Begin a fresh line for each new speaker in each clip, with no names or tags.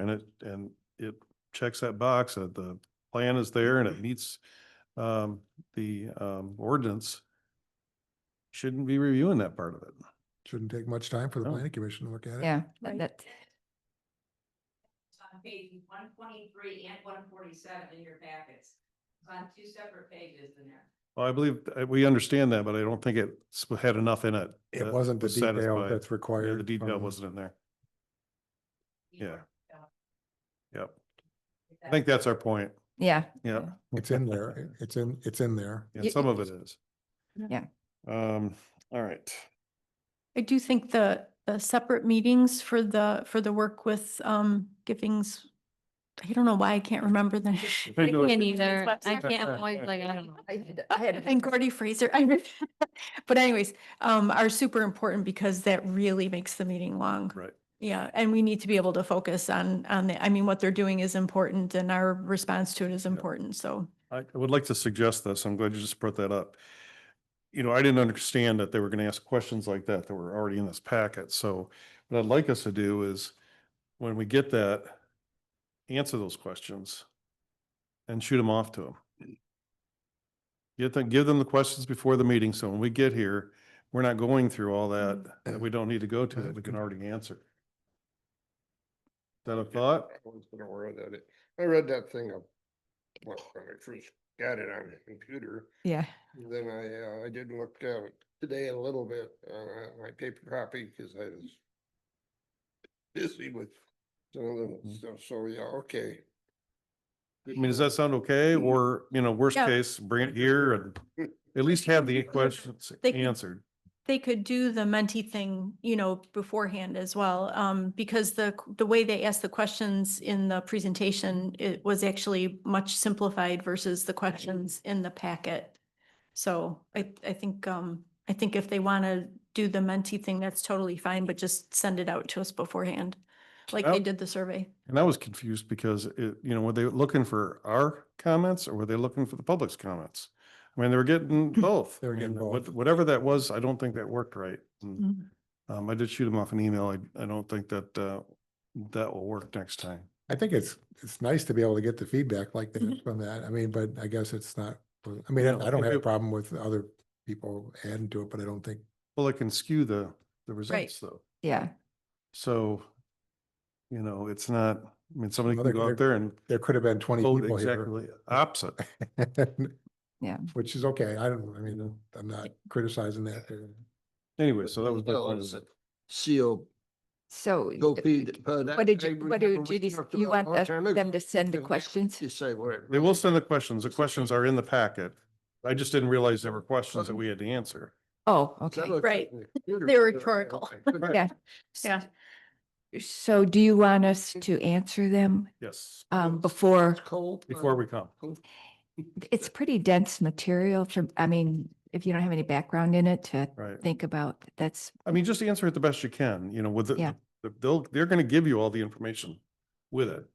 And it, and it checks that box, that the plan is there and
Mm-hmm.
it meets um, the um, ordinance. Shouldn't be reviewing that part of it.
Shouldn't take much time for the
No.
planning commission to look at it.
Yeah,
Right.
that, that-
It's on page one twenty-three and one forty-seven in your packets. It's on two separate pages in there.
Well, I believe, uh, we understand that, but I don't think it sp- had enough in it.
It
that
wasn't the
was
detail
satisfied.
that's required.
Yeah, the detail
from-
wasn't in there.
You
Yeah.
work it out.
Yep. I think that's our point.
yeah.
Yeah.
It's in there. It- It's in, it's in there.
Yeah,
Y-
some of it is.
Yeah.
Um, all right.
I do think the, the separate meetings for the, for the work with, um, Givings, I don't know why I can't remember the.
I know it's-
name.
Can't either. I
website.
can't, I'm always like, I don't know.
Oh, And Gordy Fraser, I, re- but anyways, um, are super important because that really makes the meeting long.
Right.
Yeah, and we need to be able to focus on, on the, I mean, what they're doing is important and our response to it is
Yep.
important, so.
I I would like to suggest this. I'm glad you just brought that up. You know, I didn't understand that they were going to ask questions like that that were already in this packet. So what I'd like us to do is when we get that, answer those questions and shoot them off to them. Get them, give them the questions before the meeting. So when we get here, we're not going through all that that we don't need to go to that we can already answer. Is that a thought?
Everyone's been aware of that. It- I read that thing up when when I first got it on the computer.
Yeah.
Then I, uh, I did look at it today a little bit, uh, my paper copy, because I was busy with some of the stuff. So, yeah, okay.
Mm-hmm. I mean, does that sound okay?
Mm-hmm.
Or, you know, worst
Yeah.
case, bring it here and at least have the questions
They can-
answered.
they could do the mentee thing, you know, beforehand as well, um, because the, q- the way they asked the questions in the presentation, it was actually much simplified versus the questions in the packet. So I, I think, um, I think if they want to do the mentee thing, that's totally fine, but just send it out to us beforehand, like
Well-
they did the survey.
And I was confused because it, you know, were they looking for our comments or were they looking for the public's comments? I mean, they were getting both.
They were
I mean,
getting
what-
both.
Whatever that was, I don't think that worked right. And,
Mhm.
Mm.
Um, I did shoot them off an email. I, I don't think that, uh, that will work next time.
I think it's, it's nice to be able to get the feedback like that from that. I mean, but I guess it's not, I mean,
No,
I- I don't
if
have a
it-
problem with other people adding to it, but I don't think
Well, it can skew the, the results though.
Yeah,
So, you know, it's not, I mean, somebody
Well,
can go
they're-
out
they're-
there and
there could have been twenty
vote
people here.
exactly opposite.
Yeah.
Which is okay. I don't, I mean, I'm not criticizing that. or-
Anyway, so that was. my
Well,
point
it's
of
a
it.
Seal,
so.
go
d-
feed.
d-
uh, that-
What did
I
you, what
remember
do
we
Judy, s-
talked
you
about a
want
long
us-
time ago.
them to send the
And
questions?
You say, well. it
They will
really-
send the questions. The questions are in the packet. I just didn't realize there were questions that we had to answer.
Oh,
So I
okay.
looked at
Right.
the computer,
They're
I- I-
rhetorical.
I couldn't-
Right.
Yeah.
Yeah.
So do you want us to answer them
Yes,
Oh.
um before?
It's cold.
before we come.
It's pretty dense material from, I mean, if you don't have any background in it to
Right.
think about, that's,
I mean, just answer it the best you can, you know, with
Yeah.
the, the- they'll, they're going to give you all the information with it.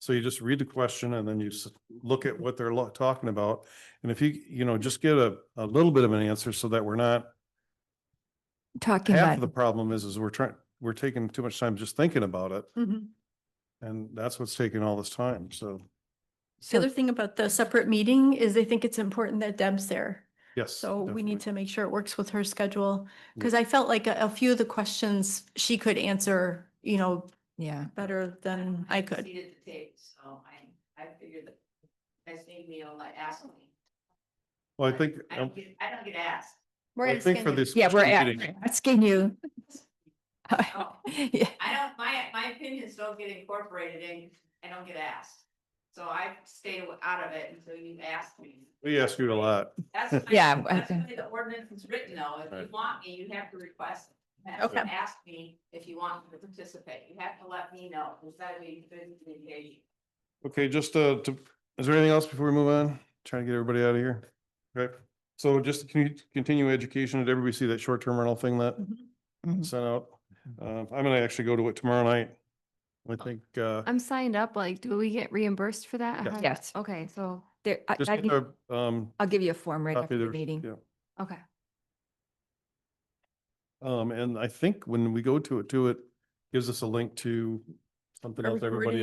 So you just read the question and then you s- look at what they're lo- talking about. And if you, you know, just get a, a little bit of an answer so that we're not,
talking
half of the
about,
problem is, is we're trying, we're taking too much time just thinking about it.
Mhm.
And that's what's taking all this time. So,
The
so,
other thing about the separate meeting is they think it's important that Deb's there.
yes.
So we
definitely.
need to make sure it works with her schedule,
Yeah.
because I felt like a, a few of the questions she could answer, you know,
yeah.
better than I could.
Seated at the table, so I, I figured that you guys need me, all like, ask me.
Well, I think.
I
um,
don't get, I don't get asked.
We're
I think for
asking-
this.
Yeah, we're
special
a-
meeting-
asking you.
Oh,
Yeah,
I don't, my, my opinions don't get incorporated in, I don't get asked. So I stay aw- out of it until you ask me.
We ask you a lot.
That's. my-
Yeah, I
That's the
think-
way the ordinance is written though. If you
Right.
want me, you have to request. it. You have to
Okay.
Ask me if you want me to participate. You have to let me know. Is that way you can engage?
Okay, just uh, to, is there anything else before we move on? Trying to get everybody out of here. Okay, so just to con- continue education, did everybody see that short-term rental thing that
Mhm.
Mhm.
sent out? Um, I'm gonna actually go to it tomorrow night.
Oh.
I think, uh,
I'm signed up, like, do we get reimbursed for that?
Yeah.
How-
Yes.
Okay, so,
there, I-
just
I
get
can-
the, um,
I'll give you a form right
copy
after the
of the-
meeting.
yeah.
okay.
Um, and I think when we go to it, to it, gives us a link to something
Are we
else everybody
recording?